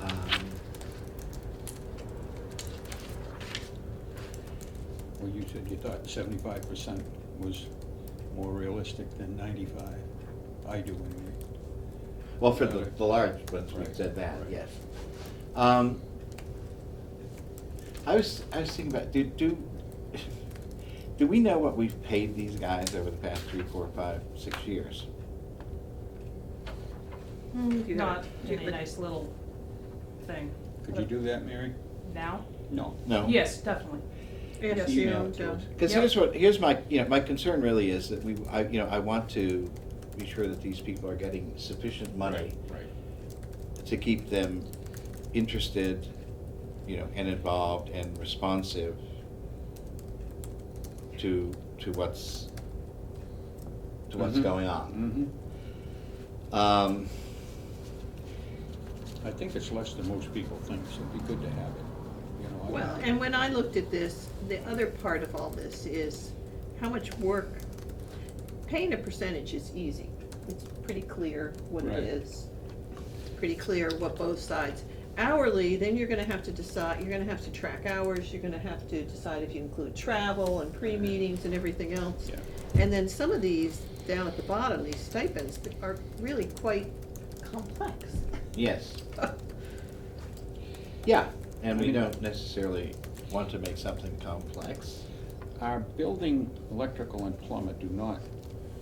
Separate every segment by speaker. Speaker 1: Um,
Speaker 2: said you thought seventy-five percent was more realistic than ninety-five. I do anyway.
Speaker 1: Well, for the, the large ones, we
Speaker 2: Right,
Speaker 1: said that,
Speaker 2: right.
Speaker 1: yes. Um, I was, I was thinking about, do, do, do we know what we've paid these guys over the past three, four, five, six years?
Speaker 3: Do you have-
Speaker 4: Mm, Not
Speaker 3: do you
Speaker 4: in
Speaker 3: have
Speaker 4: a
Speaker 3: a-
Speaker 4: nice little thing.
Speaker 2: Could you do that, Mary?
Speaker 4: Now?
Speaker 2: No.
Speaker 1: No?
Speaker 4: Yes, definitely. Yes,
Speaker 3: you
Speaker 2: Email
Speaker 3: know,
Speaker 2: it to
Speaker 3: Joe.
Speaker 2: us.
Speaker 1: Because
Speaker 4: Yep.
Speaker 1: here's what, here's my, you know, my concern really is that we, I, you know, I want to be sure that these people are getting sufficient money
Speaker 2: Right,
Speaker 1: to keep them interested, you know, and involved and responsive to, to what's, to what's
Speaker 2: Mhm.
Speaker 1: going
Speaker 2: right.
Speaker 1: on.
Speaker 2: Mhm. Mm-hmm.
Speaker 1: Um,
Speaker 2: I think it's less than most people think, so it'd be good to have it, you know. I-
Speaker 3: Well, and when I looked at this, the other part of all this is how much work, paying a percentage is easy. It's pretty clear what
Speaker 2: Right.
Speaker 3: it is. It's Pretty clear what both sides. Hourly, then you're gonna have to decide, you're gonna have to track hours, you're gonna have to decide if you include travel and pre-meetings and everything else.
Speaker 2: Yeah.
Speaker 3: And then some of these, down at the bottom, these stipends are really quite complex.
Speaker 1: yes, yeah, and we
Speaker 2: I mean-
Speaker 1: don't necessarily want to make something complex.
Speaker 2: Our building, electrical and plumber do not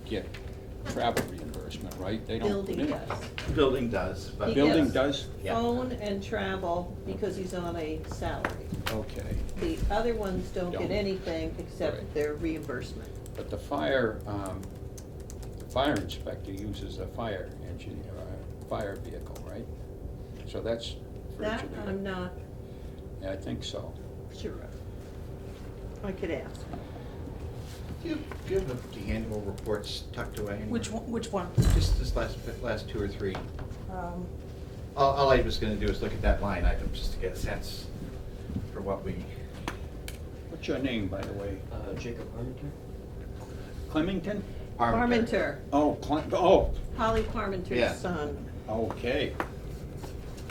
Speaker 2: get travel reimbursement, right? They don't put
Speaker 3: Building,
Speaker 2: in.
Speaker 3: yes.
Speaker 1: Building does, but.
Speaker 3: He
Speaker 2: Building
Speaker 3: Yes.
Speaker 2: does?
Speaker 1: Yeah.
Speaker 3: phone and travel because he's on a salary.
Speaker 2: Okay.
Speaker 3: The other ones don't
Speaker 2: Don't.
Speaker 3: get anything
Speaker 2: Right.
Speaker 3: except their reimbursement.
Speaker 2: But the fire, um, the fire inspector uses a fire engine, or a fire vehicle, right? So that's for each
Speaker 3: That um,
Speaker 2: of them.
Speaker 3: I'm not
Speaker 2: Yeah, I think so.
Speaker 3: sure of. I could ask.
Speaker 1: Do you, do you have the annual reports tucked away? anywhere?
Speaker 4: Which one, which one?
Speaker 1: Just this last, last two or three.
Speaker 4: Um,
Speaker 1: All, all I was gonna do is look at that line item, just to get a sense for what we.
Speaker 2: What's your name, by the way?
Speaker 5: Uh, Jacob Armenter?
Speaker 2: Clemington?
Speaker 3: Parmenter,
Speaker 2: Oh, Cle, oh,
Speaker 3: Holly
Speaker 1: Yeah.
Speaker 3: Parmenter's son.
Speaker 2: okay.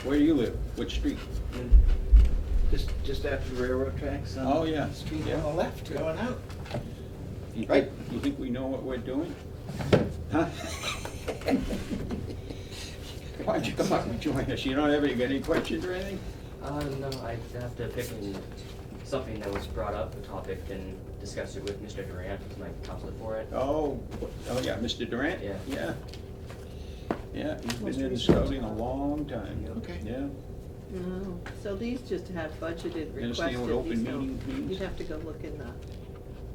Speaker 2: Where do you live? Which street?
Speaker 1: Just, just after the railroad tracks? on
Speaker 2: Oh, yeah.
Speaker 1: the Street
Speaker 2: Yeah.
Speaker 1: on the left, going out.
Speaker 2: You think-
Speaker 1: Right.
Speaker 2: You think we know what we're doing? Huh? Why'd you come up and join us? You don't have any, got any questions or anything?
Speaker 5: Uh, no, I'd have to pick an- something that was brought up, a topic, and discuss it with Mr. Durant, who's my counselor for it.
Speaker 2: Oh, oh, yeah, Mr. Durant?
Speaker 5: Yeah.
Speaker 2: Yeah. Yeah, he's been in scouting a long time.
Speaker 1: Okay.
Speaker 2: Yeah.
Speaker 3: No, Oh, so these just have budgeted
Speaker 2: You understand
Speaker 3: requested.
Speaker 2: what open
Speaker 3: These don't-
Speaker 2: meeting means?
Speaker 3: You'd have to go look in the,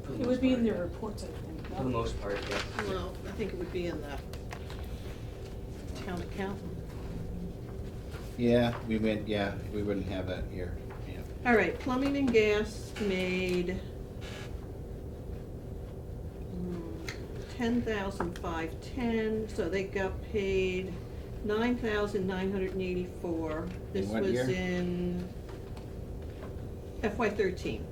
Speaker 5: For the
Speaker 4: It
Speaker 5: most
Speaker 4: would be
Speaker 5: part,
Speaker 4: in the
Speaker 5: yeah.
Speaker 4: reports, I think.
Speaker 5: For the most part, yes.
Speaker 3: well, I think it would be in the town accountant.
Speaker 1: Yeah, we went, yeah, we wouldn't have that here, yeah.
Speaker 3: All right, plumbing and gas made ten thousand five ten, so they got paid nine thousand nine hundred and eighty-four. This
Speaker 1: what year?
Speaker 3: was in FY thirteen.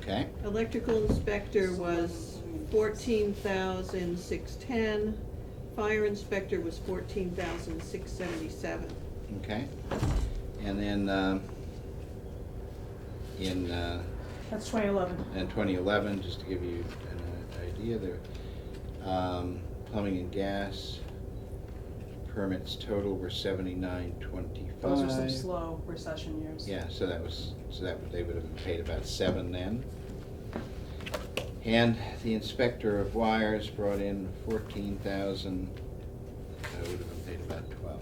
Speaker 1: Okay,
Speaker 3: Electrical inspector was fourteen thousand six ten. Fire inspector was fourteen thousand six seventy-seven.
Speaker 1: okay. And then, um, in, uh,
Speaker 4: That's twenty eleven.
Speaker 1: in twenty eleven, just to give you an uh, idea there, um, plumbing and gas permits total were seventy-nine twenty-five.
Speaker 4: Those are some slow recession years.
Speaker 1: Yeah, so that was, so that, they would have been paid about seven then. And the inspector of wires brought in fourteen thousand, that would have been paid about twelve.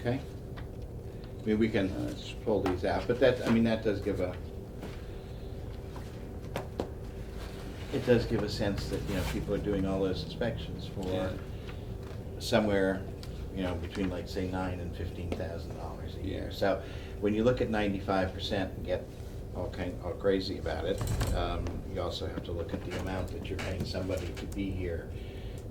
Speaker 1: Okay? I mean, we can uh, just pull these out, but that, I mean, that does give a, it does give a sense that, you know, people are doing all those inspections
Speaker 2: Yeah.
Speaker 1: for somewhere, you know, between like, say, nine and fifteen thousand dollars a year.
Speaker 2: Yeah.
Speaker 1: So when you look at ninety-five percent and get all kind, all crazy about it, um, you also have to look at the amount that you're paying somebody to be here,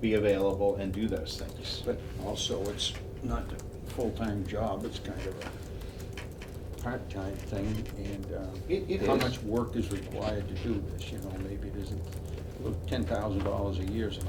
Speaker 1: be available and do those things.
Speaker 2: But also, it's not a full-time job, it's kind of a part-time thing, and, um,
Speaker 1: It- it
Speaker 2: How
Speaker 1: is.
Speaker 2: much work is required to do this, you know, maybe it isn't, look, ten thousand dollars a year is not